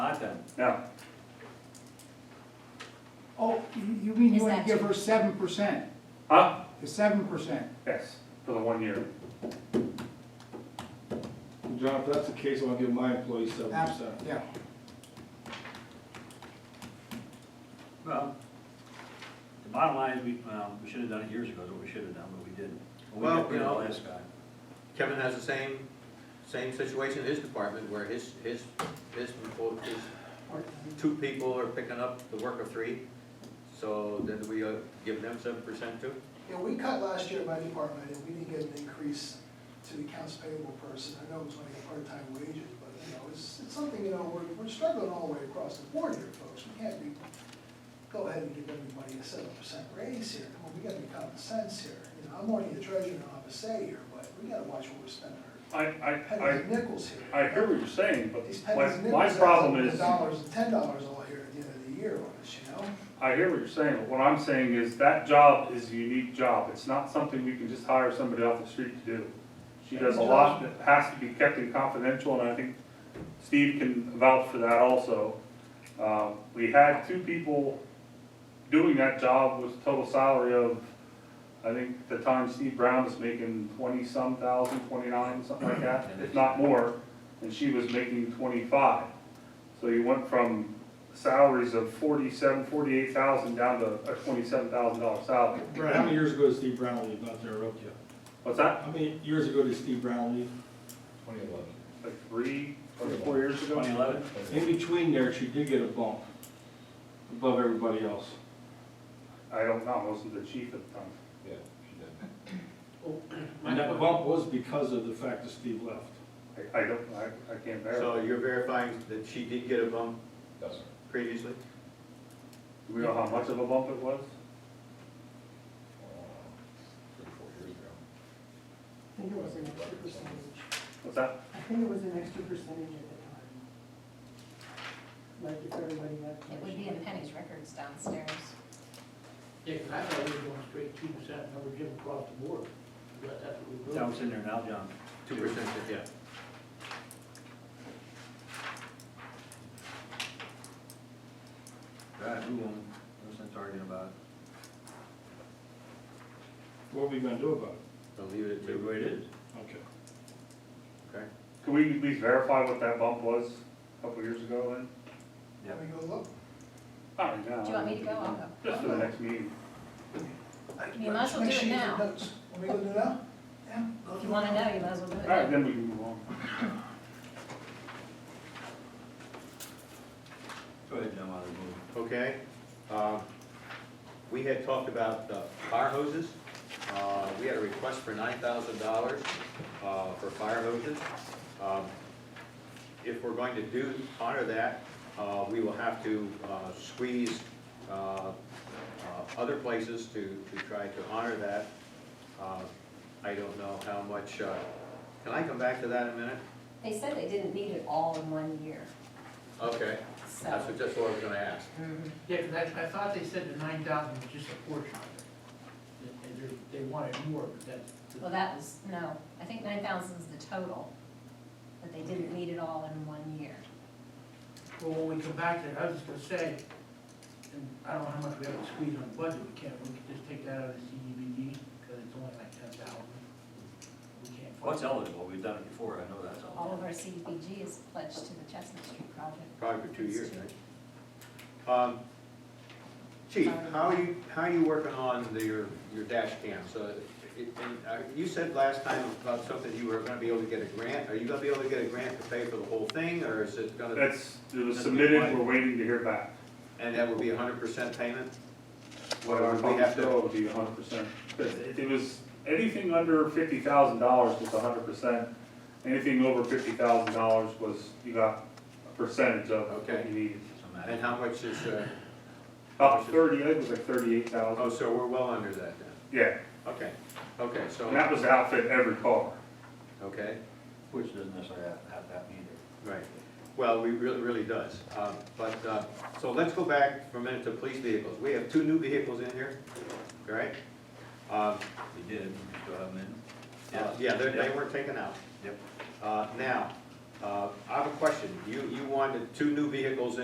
them. Yeah, Oh, you- you mean Is you want that to give you? her seven percent, huh? the seven percent? ah, Yes, for the one year. John, if that's the case, I'll give my employees seven percent. Yeah, Well, the bottom line is, we, well, we should have done it years ago, is what we should have done, but we didn't. When we Well, did it you know- last time. Kevin has the same, same situation in his department where his, his, his, people- his two people are picking up the work of three. So then we uh, give them seven percent too? Yeah, we cut last year at my department, and we didn't get an increase to the accounts payable person. I know it's only a part-time wages, but, you know, it's, it's something, you know, we're, we're struggling all the way across the board here, folks. We can't be, go ahead and give everybody a seven percent raise here. Come on, we gotta be common sense here. You know, I'm already the treasurer and I have a say here, but we gotta watch what we're spending our I, I, pennies and nickels here. I, I hear what you're saying, These but pennies my, and my nickels adds up problem to is, Dollars, and ten dollars all here at the end of the year on us, you know? I hear what you're saying, but what I'm saying is that job is a unique job. It's not something we can just hire somebody off the street to do. She does a lot that has to be kept in confidential, and I think Steve can vouch for that also. Um, we had two people doing that job with a total salary of, I think at the time Steve Brown was making twenty-some thousand, twenty-nine, something like that, if not more, and she was making twenty-five. So you went from salaries of forty-seven, forty-eight thousand down to a twenty-seven thousand dollar salary. Brad, how many years ago did Steve Brown leave out there, Rokia? What's that, How many years ago did Steve Brown leave? like three, three, four years ago? Twenty eleven? In between there, she did get a bump above everybody else. I don't know, I wasn't the chief at the time. And that bump was because of the fact that Steve left. I, I don't, I, I can't So verify. you're verifying that she did get a bump previously? Do we know how much of a bump it was? I think it was an extra percentage. What's that? I think it was an extra percentage at the time. Like if everybody left. It would be in Penny's records downstairs. Yeah, 'cause I thought we were going straight two percent, number given across the board, but that's what we were. That was in there now, John. Two percent, yeah. Right, who won? Who's been arguing about it? What are we gonna do about I'll leave it at Maybe two, it is. it? Okay. okay? Can we at least verify what that bump was a couple years ago then? Yep. Let me go look. Not right now. Do you want me to go? I'll go. Just for the next meeting. You might as well Make do sure it you get now. notes. Want me to go do it now? Yeah. go If do you it wanna now. know, you might as well do it. All right, now. then we can move on. Go ahead, John, I'll remove it. okay? Um, We had talked about the fire hoses. Uh, We had a request for nine thousand dollars uh, for fire hoses. Um, If we're going to do, honor that, uh, we will have to uh, squeeze uh, uh, other places to, to try to honor that. Uh, I don't know how much, uh, can I come back to that in a minute? They said they didn't need it all in one year, Okay, that's so. what, that's what I was gonna ask. Mhm. Yeah, 'cause I, I thought they said the nine thousand was just a portion of it. They, they- they wanted more, but that's. Well, that was, no, I think nine thousand is the total, but they didn't need it all in one year. Well, when we come back to it, I was just gonna say, and I don't know how much we have to squeeze on the budget, we can't, we can just take that out of the CDBG, because it's only like ten thousand. We can't. fund What's it. eligible? We've done it before, I know that's All of eligible. our CDBG is pledged to the Chestnut Street project. Probably for two It's years, two. right? Um, Chief, how are you, how are you working on the- your, your dash cam? So, it- and, uh, you said last time about something, you were gonna be able to get a grant. Are you gonna be able to get a grant to pay for the whole thing, or is it gonna, That's, it was submitted, we're waiting to hear back. and that would be hundred percent payment? What our Or we have cost to- bill would be hundred percent. It it was, anything under fifty thousand dollars was hundred percent. Anything over fifty thousand dollars was, you got a percentage of what Okay. you needed. Doesn't matter. And how much is, uh, About thirty, I think it was like thirty-eight thousand. oh, so we're well under that then? Yeah, Okay, okay, and so, that was to outfit every car. okay. Which doesn't necessarily have, have that either. Right, well, we really, really does, Um, but, uh, so let's go back for a minute to police vehicles, we have two new vehicles in here, correct? Um, We did, we still haven't been. uh, Yeah, they, they Yep. weren't taken out. Yep. Uh, now, Uh, I have a question. You, you wanted two new vehicles in